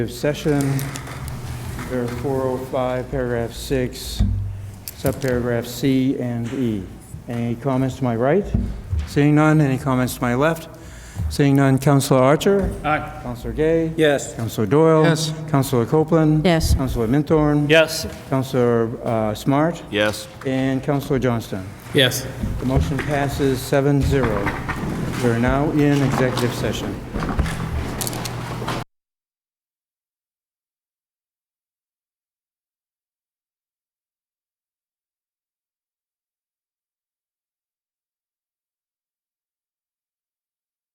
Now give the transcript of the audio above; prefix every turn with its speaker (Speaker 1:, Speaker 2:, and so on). Speaker 1: Session, there are 405, paragraph 6, subparagraph C and E. Any comments to my right? Seeing none, any comments to my left? Seeing none, Counselor Archer? Aye. Counselor Gay?
Speaker 2: Yes.
Speaker 1: Counselor Doyle? Yes. Counselor Copeland?
Speaker 3: Yes.
Speaker 1: Counselor Minthorn?
Speaker 2: Yes.
Speaker 1: Counselor uh, Smart?
Speaker 4: Yes.
Speaker 1: And Counselor Johnston.
Speaker 2: Yes.
Speaker 1: The motion passes 7-0. We are now in executive session.